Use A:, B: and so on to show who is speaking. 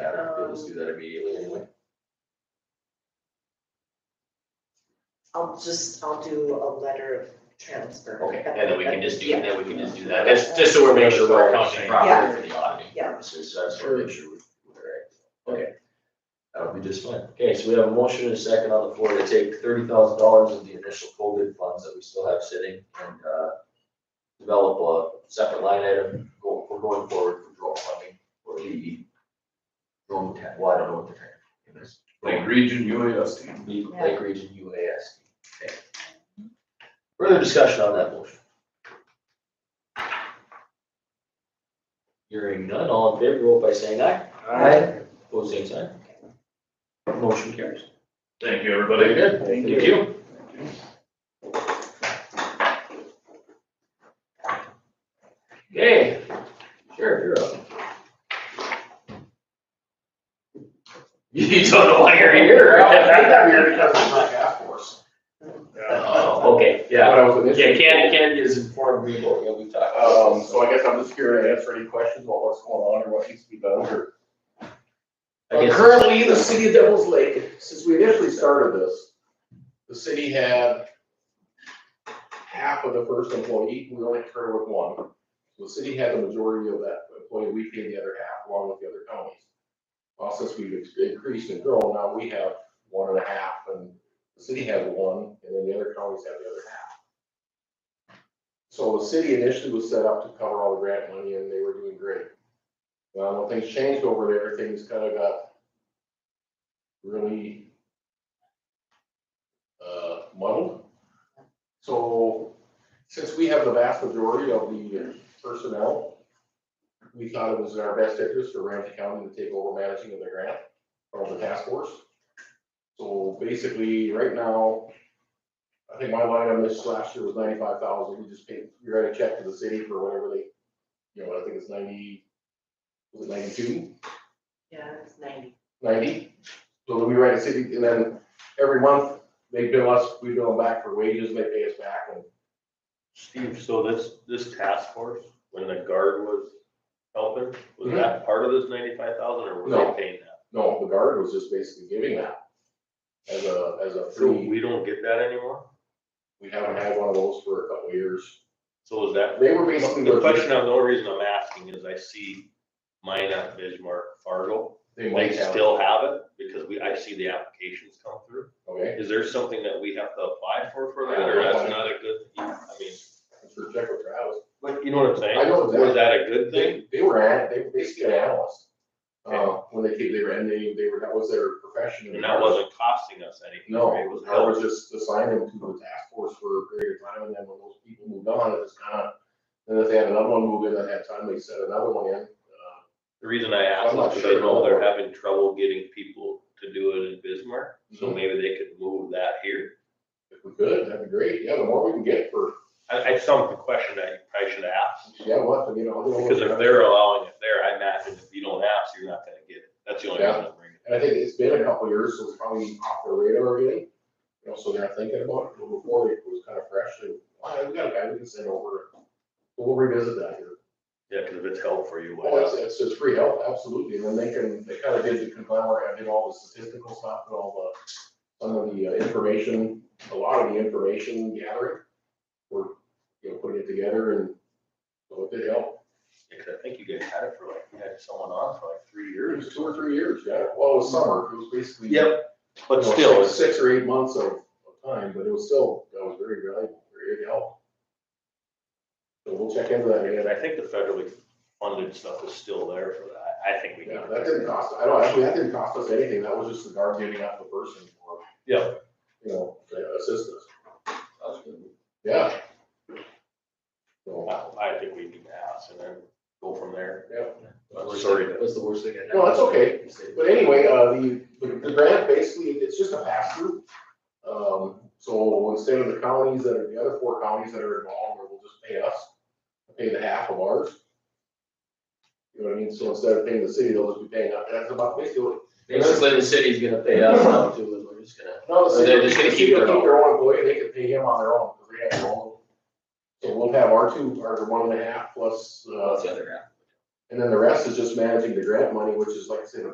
A: Um,
B: just do that immediately anyway.
C: I'll just, I'll do a letter of transfer.
A: Okay, and then we can just do,
C: Yeah.
A: then we can just do that, just, just so we're making sure we're accounting properly for the auditing
C: Yeah.
A: purposes, so I just wanna make sure we're.
B: Okay. That would be just fine. Okay, so we have a motion and a second on the floor to take thirty thousand dollars of the initial COVID funds that we still have sitting and, uh, develop a separate line item, go, we're going forward for drone funding or the drone tech, well, I don't know what the tech is.
D: Like region UASD.
B: Lake- Lake Region UAS. Okay. Further discussion on that motion? Hearing none, all in favor, vote by saying aye. Pose same sign. Motion carries.
D: Thank you, everybody.
B: good.
D: Thank
B: Thank you. Okay, Sheriff, you're up.
A: You don't know why you're Oh, okay, yeah, yeah, Ken, Ken is informed me, but yeah, we talked. about
E: Um, so I guess I'm just here to answer any questions about what's going on or what needs to be done or.
B: I guess-
E: Currently, the city of Devil's Lake, since we initially started this, the city had half of the first employee, we only started with one. So The city had the majority of that employee, we paid the other half along with the other counties. Well, since we've ex- increased and grown, now we have one and a half and the city has one and then the other counties have the other half. So the city initially was set up to cover all the grant money and they were doing great. Well, when things changed over there, things kind of got really uh, muddled. So since we have the vast majority of the personnel, we thought it was in our best interest for Ramsey County to take over managing of the grant from the task force. So basically, right now, I think my line on this last year was ninety-five thousand, we just paid, we write a check to the city for whatever they, you know, I think it's ninety, was it ninety-two,
C: Yeah, it's ninety.
E: ninety? So then we write a city, and then every month, they bill us, we bill them back for wages, and they pay us back, and
F: Steve, so this, this task force, when the guard was helping, was that part of this ninety-five thousand or was
E: Mhm. No.
F: they paying that?
E: no, the guard was just basically giving that as a, as a
F: So
E: free,
F: we don't get that anymore?
E: we haven't had one of those for a couple of years.
F: So is that,
E: They were basically,
F: the
E: looking-
F: question, the only reason I'm asking is I see Minot, Bismarck, Fargo,
E: they
F: they
E: might have,
F: still have it because we, I see the applications come through.
E: okay,
F: Is there something that we have to apply for for
E: I
F: that
E: don't
F: or
E: know.
F: that's not a good, I mean,
E: I'm sure check with Travis.
F: like, you know what I'm saying?
E: I know exactly.
F: Was that a good thing?
E: They, they were at, they were basically an analyst. Uh, when they came, they were, and they, they were, that was their profession.
F: And that wasn't costing us anything,
E: No,
F: right? It was
E: I
F: help.
E: was just assigned them to the task force for a period of time, and then when those people moved on, it was kind of, then if they had another one move in at that time, they set another one in. Uh,
F: The reason I ask
E: I'm not
F: is because I
E: sure.
F: know they're having trouble getting people to do it in Bismarck, so maybe they could move that here.
E: If we could, that'd be great, yeah, the more we can get for,
F: I, I some question I probably should ask,
E: yeah, we'll have to get all.
F: because if they're allowing it there, I imagine if you don't ask, you're not gonna get it. That's the only reason I'm bringing it.
E: And I think it's been a couple of years, so it's probably off their radar again. You know, so they're thinking about it, but before it was kind of fresh, and, wow, we got a guy we can send over. We'll revisit that here.
F: Yeah, because if it's help for you,
E: Oh,
F: why
E: it's,
F: not?
E: it's, it's free help, absolutely, and then they can, they kind of did the conglomerate, I did all the statistical stuff and all the, some of the uh, information, a lot of the information gathering. We're, you know, putting it together and, so it did help,
F: Because I think you guys had it for like, you had someone on for like three
E: it
F: years.
E: was two or three years, yeah, well, it was summer, it was basically.
F: Yep, but
E: you know,
F: still,
E: six-
F: it's-
E: Six or eight months of, of time, but it was still, that was very valuable, very good help. So we'll check into that
F: and
E: again,
F: I think the federally funded stuff is still there for that. I think we
E: yeah,
F: got
E: that
F: that.
E: didn't cost, I don't, actually, that didn't cost us anything, that was just the guard giving up the person for.
F: Yeah.
E: You know, to assist us,
B: That's good.
E: yeah. So,
F: I, I think we need to ask and then go from there.
E: yeah.
F: I'm sorry to-
B: That's the worst thing.
E: No, that's okay. But anyway, uh, the, the the grant basically, it's just a pass through. Um, so instead of the counties that are, the other four counties that are involved, they will just pay us, pay the half of ours. You know what I mean? So instead of paying the city, they'll just be paying us. That's about basically what.
B: Basically, the city's gonna pay us now too, and we're just gonna,
E: No, the
B: So they're
E: city-
B: just gonna
E: the
B: keep
E: city will
B: their own.
E: Their own employee, they can pay him on their own, because they have their own. So we'll have our two, our one and a half plus,
B: well, that's
E: uh,
B: oh, the other half.
E: and then the rest is just managing the grant money, which is like I said,